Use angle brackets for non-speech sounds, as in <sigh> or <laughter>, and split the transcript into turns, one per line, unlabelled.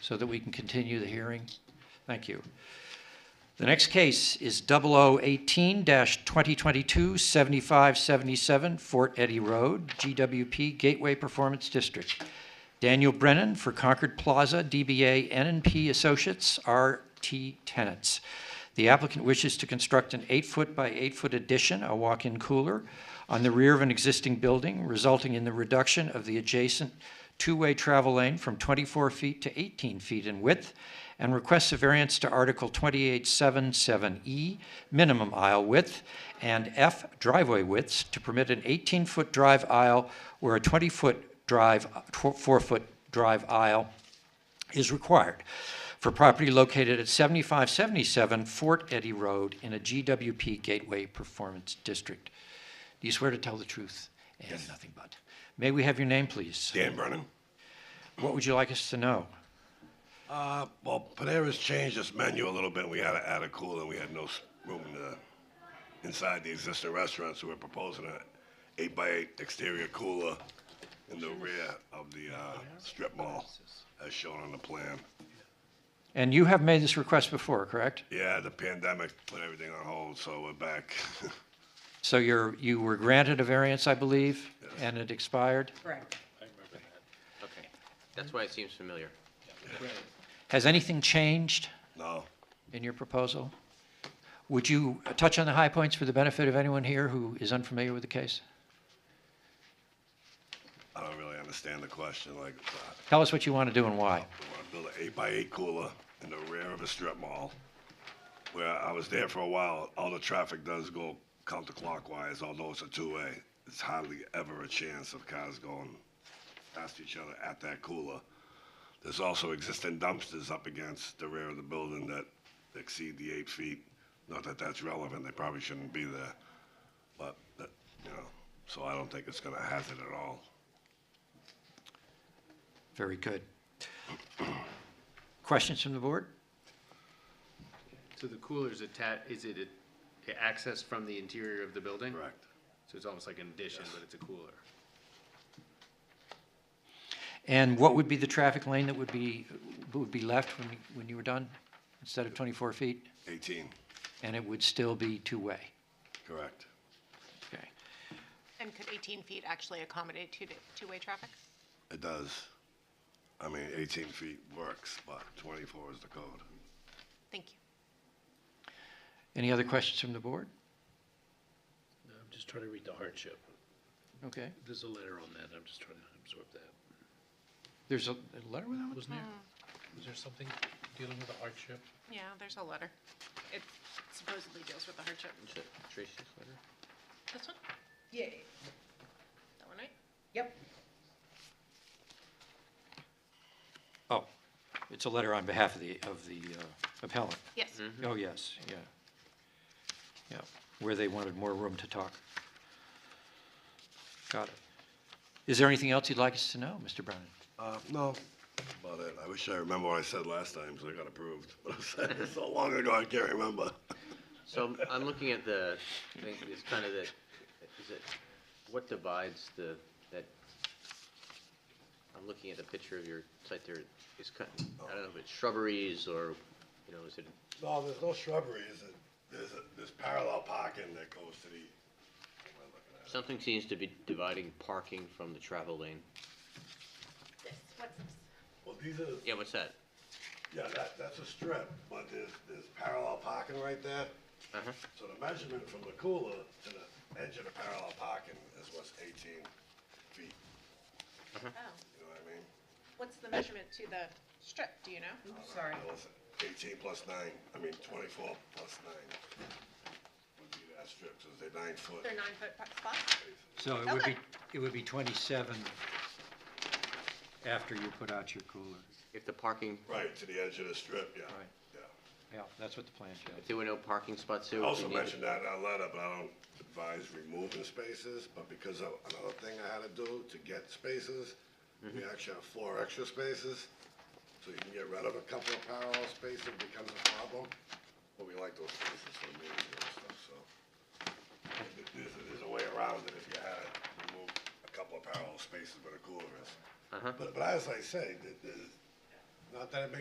so that we can continue the hearing? Thank you. The next case is 0018-2022-7577 Fort Eddy Road, GWP Gateway Performance District. Daniel Brennan for Concord Plaza, DBA NNP Associates, RT Tenants. The applicant wishes to construct an eight-foot by eight-foot addition, a walk-in cooler, on the rear of an existing building, resulting in the reduction of the adjacent two-way travel lane from 24 feet to 18 feet in width, and requests a variance to Article 2877E, minimum aisle width, and F driveway widths to permit an 18-foot drive aisle where a 20-foot drive, tw- four-foot drive aisle is required for property located at 7577 Fort Eddy Road in a GWP Gateway Performance District. Do you swear to tell the truth and nothing but? May we have your name, please?
Dan Brennan.
What would you like us to know?
Uh, well, Panera's changed its menu a little bit. We had to add a cooler. We had no s- room to, inside the existing restaurant, so we're proposing an eight by eight exterior cooler in the rear of the uh, strip mall, as shown on the plan.
And you have made this request before, correct?
Yeah, the pandemic put everything on hold, so we're back. <laughs>
So you're, you were granted a variance, I believe, and it expired?
Correct.
Okay, that's why it seems familiar.
Has anything changed
no,
in your proposal? Would you touch on the high points for the benefit of anyone here who is unfamiliar with the case?
I don't really understand the question. Like, uh,
Tell us what you want to do and why.
We want to build an eight by eight cooler in the rear of a strip mall. Where I was there for a while, all the traffic does go counterclockwise, although it's a two-way. It's hardly ever a chance of cars going past each other at that cooler. There's also existing dumpsters up against the rear of the building that exceed the eight feet. Not that that's relevant, they probably shouldn't be there, but, that, you know, so I don't think it's gonna hazard at all.
Very good. Questions from the board?
So the cooler's attached, is it a- accessed from the interior of the building?
Correct.
So it's almost like an addition, but it's a cooler.
And what would be the traffic lane that would be, would be left when, when you were done, instead of 24 feet?
Eighteen,
And it would still be two-way?
correct.
Okay.
And could 18 feet actually accommodate two, two-way traffic?
It does. I mean, 18 feet works, but 24 is the code.
Thank you.
Any other questions from the board?
I'm just trying to read the hardship.
Okay.
There's a letter on that, I'm just trying to absorb that.
There's a a letter with that one?
Wasn't there, was there something dealing with the hardship?
Yeah, there's a letter. It supposedly deals with the hardship.
Is it Tracy's letter?
This one?
Yeah,
That one, right?
yep.
Oh, it's a letter on behalf of the, of the uh, appellant.
Yes.
Oh, yes, yeah. Yeah, where they wanted more room to talk. Got it. Is there anything else you'd like us to know, Mr. Brennan?
Uh, no, about it. uh, I wish I remember what I said last time, because I got approved. <laughs> But I said it so long ago, I can't remember.
So I'm- I'm looking at the, I think it's kind of the, is it, what divides the, that, I'm looking at the picture of your site there, it's kind, I don't know if it's shrubberies or, you know, is it,
No, there's no shrubbery, is it? There's, a- there's parallel parking that goes to the, what am I looking at?
something seems to be dividing parking from the travel lane.
This, what's this?
Well, these are,
Yeah, what's that?
yeah, that, that's a strip, but there's, there's parallel parking right there.
Uh-huh.
So the measurement from the cooler to the edge of the parallel parking is what's 18 feet,
Oh,
you know what I mean?
what's the measurement to the strip, do you know?
Oops, sorry.
Well, it's Eighteen plus nine, I mean twenty-four plus nine. Would be that strip, so they're nine foot.
They're nine-foot spots?
So it would be,
Okay.
it would be 27 after you put out your cooler.
If the parking,
Right, to the edge of the strip, yeah,
Right.
yeah.
Yeah, that's what the plan shows.
if there were no parking spots there.
I
would we
Also
need it?
mentioned that in our letter, but I don't advise removing spaces, but because of another thing I had to do to get spaces, we
Mm-hmm.
actually have four extra spaces, so you can get rid of a couple of parallel spaces, it becomes a problem. But we like those spaces for meetings and stuff, so. There- There's, there's a way around it if you had to remove a couple of parallel spaces where the cooler is.
Uh-huh.
But, but as I say, there- there's, not that it makes